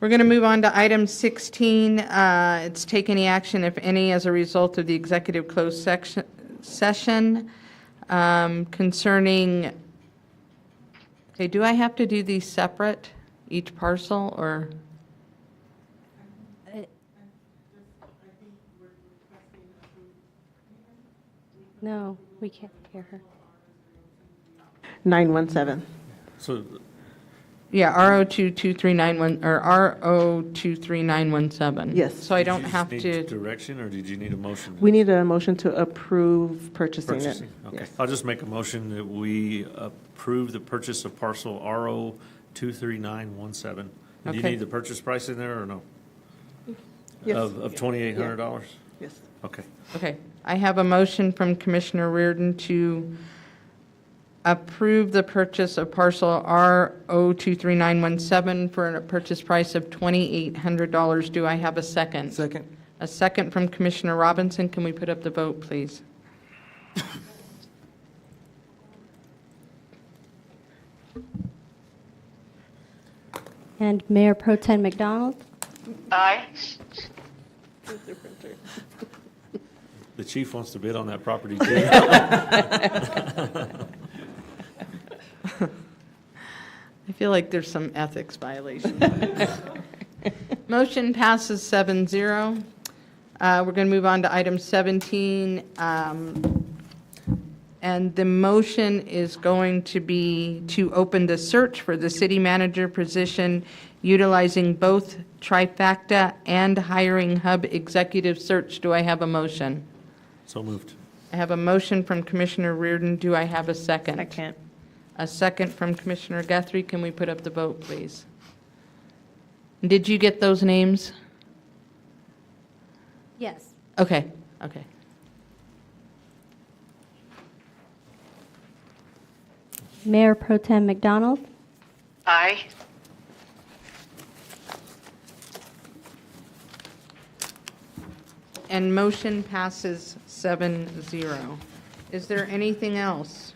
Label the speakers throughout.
Speaker 1: We're going to move on to item 16. Uh, It's take any action, if any, as a result of the executive closed section- session um, concerning, okay, do I have to do these separate, each parcel, or?
Speaker 2: No, we can't hear her.
Speaker 3: 917.
Speaker 4: So
Speaker 1: Yeah, R022391, or R023917.
Speaker 3: Yes.
Speaker 1: So I
Speaker 4: did you
Speaker 1: don't
Speaker 4: just
Speaker 1: have
Speaker 4: need
Speaker 1: to,
Speaker 4: Direction, or did you need a motion?
Speaker 3: We need a motion to approve purchasing it.
Speaker 4: Purchasing, okay.
Speaker 3: Yes.
Speaker 4: I'll just make a motion that we approve the purchase of parcel RO 23917. Do you
Speaker 1: Okay.
Speaker 4: need the purchase price in there or no?
Speaker 3: Yes.
Speaker 4: Of, of $2,800?
Speaker 3: Yes.
Speaker 4: Okay.
Speaker 1: okay. I have a motion from Commissioner Reardon to approve the purchase of parcel R023917 for a purchase price of $2,800. Do I have a second?
Speaker 5: Second.
Speaker 1: A second from Commissioner Robinson. Can we put up the vote, please?
Speaker 2: And Mayor Pro Tem McDonald?
Speaker 4: The chief wants to bid on that property too.
Speaker 1: I feel like there's some ethics violation. Motion passes 7-0. zero. Uh, We're going to move on to item 17. um, And the motion is going to be to open the search for the city manager position utilizing both trifecta and hiring hub executive search. Do I have a motion?
Speaker 4: So moved.
Speaker 1: I have a motion from Commissioner Reardon. Do I have a second?
Speaker 3: Second.
Speaker 1: A second from Commissioner Guthrie. Can we put up the vote, please? Did you get those names?
Speaker 2: Yes.
Speaker 1: Okay, okay.
Speaker 2: Mayor Pro Tem McDonald?
Speaker 1: Aye. And motion passes seven zero. Is there anything else?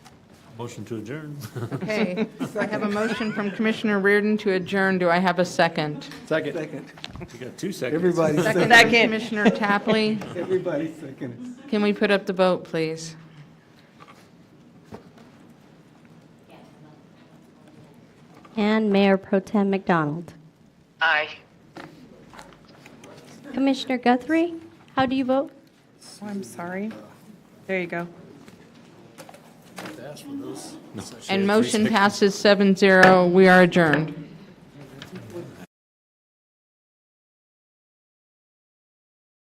Speaker 4: Motion to adjourn.
Speaker 1: Okay, I have a motion from Commissioner Reardon to adjourn. Do I have a second?
Speaker 5: Second.
Speaker 4: You got two seconds.
Speaker 5: Everybody
Speaker 1: Second
Speaker 5: second.
Speaker 1: from Commissioner Tapley.
Speaker 5: Everybody second.
Speaker 1: Can we put up the vote, please?
Speaker 2: And Mayor Pro Tem McDonald?
Speaker 1: Aye.
Speaker 2: Commissioner Guthrie, how do you vote?
Speaker 6: Oh, I'm sorry. There you go.
Speaker 1: And motion passes 7-0. We are adjourned.